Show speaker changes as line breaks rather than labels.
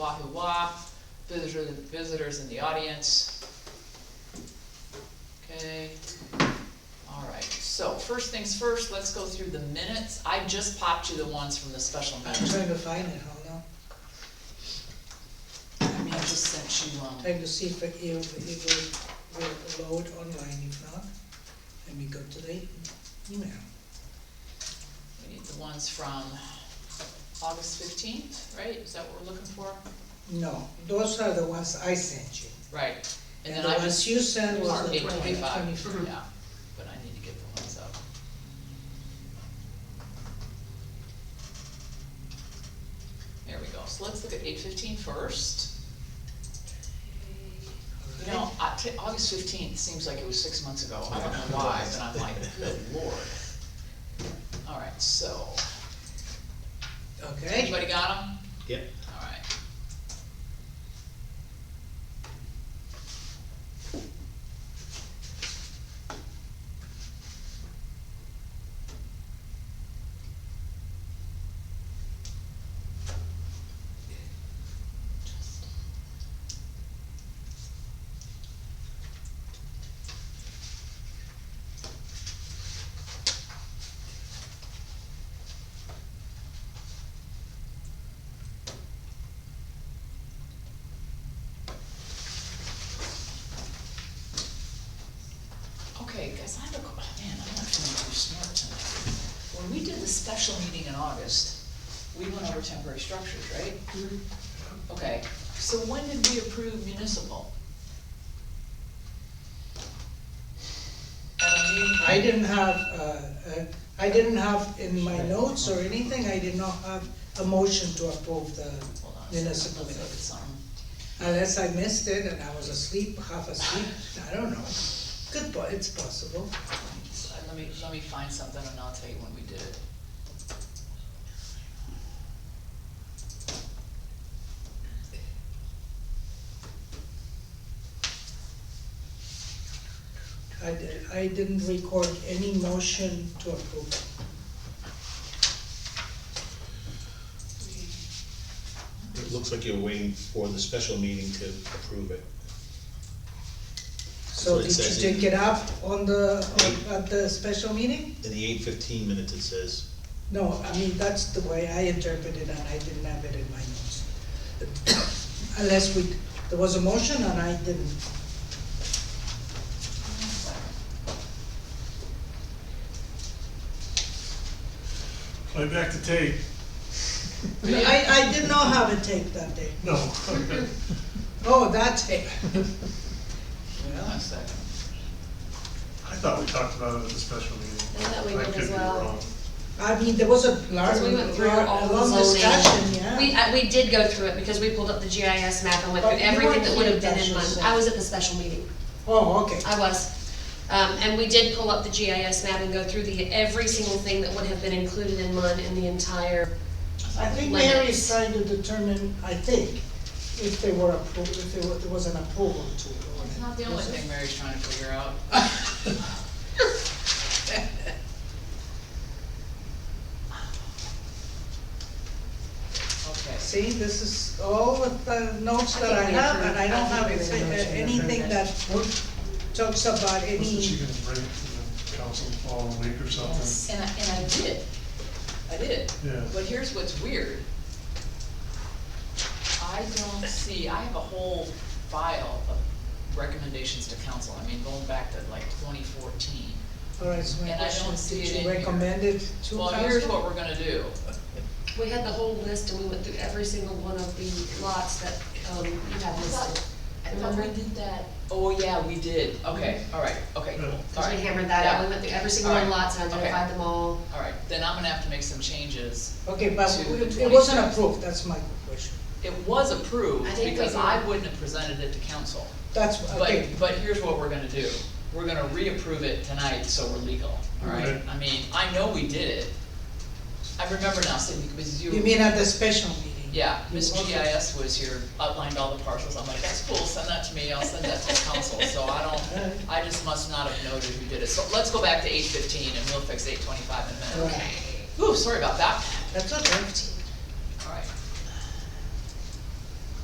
Oahu Wa, visitors, visitors in the audience. Okay, all right, so first things first, let's go through the minutes. I just popped you the ones from the special
I'm
meeting.
trying to find it, hold on,
I mean, I just sent you, um,
trying to see if it, if it will, will load online, if not, let me go to the email.
we need the ones from August fifteenth, right? Is that what we're looking for?
No, those are the ones I sent you,
Right, and
and
then
the
I
ones
just,
you sent was
are
the
eight
twenty,
twenty-five,
twenty-five. Mm-hmm.
yeah, but I need to get the ones up. There we go, so let's look at eight fifteen first. You know, I- t- August fifteenth seems like it was six months ago, I don't know why, but I'm like, good lord. All right, so,
Okay,
anybody got them?
Yep.
All right. Okay, guys, I have a, que- oh, man, I'm not feeling too smart tonight. When we did the special meeting in August, we went over temporary structures, right?
Mm-hmm.
Okay, so when did we approve municipal? At a meeting-
I didn't have, uh, uh, I didn't have in my notes or anything, I did not have a motion to approve the,
Hold on a second,
municipal
let me look at
minutes.
something.
unless I missed it and I was asleep, half asleep, I don't know. Good, po it's possible.
So, Let me, let me find something and I'll tell you when we did it.
I, di- I didn't record any motion to approve.
It looks like you're waiting for the special meeting to approve it.
So
it
did you
says
take
in-
it up on the, on- at the special meeting?
In the eight fifteen minutes, it says,
No, I mean, that's the way I interpreted and I didn't have it in my notes. Unless we, there was a motion and I didn't.
Play back the tape.
I, I did not have a tape that day.
No.
Oh, that tape.
Hold on a second.
I thought we talked about it at the special meeting.
I thought we did
I could
as
be
well.
wrong.
I mean, there was a large,
Because we went through all
a
the
long
zoning.
discussion, yeah.
We, uh, we did go through it because we pulled up the GIS map and went
But
through
you
everything
weren't
that would have been
here,
in one.
that's just-
I was at the special meeting,
Oh, okay.
I was. Um, and we did pull up the GIS map and go through the, every single thing that would have been included in one in the entire,
I think
Limits.
Mary is trying to determine, I think, if they were approved, if there were- there was an approval to it or
It's
not.
not the only thing Mary's trying to figure out. Okay,
See, this is all with the notes
I
that I
think we
have,
approved-
and I
I
don't
think
have it-
we made a motion to
anything
approve
that talks about
Wasn't she
any,
gonna bring it to the council the following week or something?
and I, and I did, I did,
Yeah.
but here's what's weird. I don't see, I have a whole file of recommendations to council, I mean, going back to like twenty fourteen.
all right, so my
And I don't
question,
see
did
it in
you
here.
recommend it to
Well, here's
council?
what we're gonna do,
we had the whole list and we went through every single one of the lots that, um, you had listed. Remember?
did that. Oh, yeah, we did, okay, all right, okay,
Yeah.
all
Cause we
right.
hammered that out, we went through every single one of the lots and
Alright.
identified them all.
All right, then I'm gonna have to make some changes.
Okay, but
to the
it- it
26th.
wasn't approved, that's my question.
It was approved
I think we
because
did.
I wouldn't have presented it to council.
That's,
But,
okay,
but here's what we're gonna do. We're gonna reapprove it tonight, so we're legal, all right?
Okay.
I mean, I know we did it. I remember now, Sydney, because you.
you mean at the special meeting?
Yeah, Ms.
Okay.
GIS was here, outlined all the parcels. I'm like, that's cool, send that to me, I'll send that to the council. So I
Alright.
don't, I just must not have noted who did it. So let's go back to eight fifteen and we'll fix eight twenty-five in a minute.
Right.
Ooh, sorry about that.
That's okay.
All right,